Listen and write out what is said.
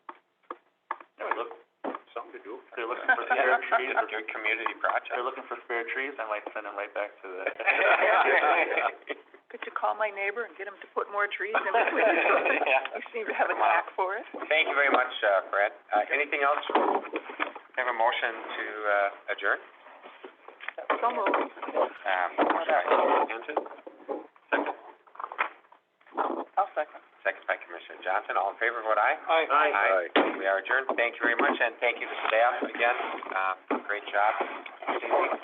school. They're looking for spare trees, or Do community projects. they're looking for spare trees, I might send them right back to the. Could you call my neighbor and get him to put more trees in between? Yeah. You seem to have a knack for it. Thank you very much, uh, Brett. Uh, anything else? Have a motion to, uh, adjourn? So moved. Um, sorry, Hanson? Second? I'll second. Second by Commissioner Johnson. All in favor, vote aye. Aye. Aye. Aye. We are adjourned. Thank you very much, and thank you to staff again. Uh, great job.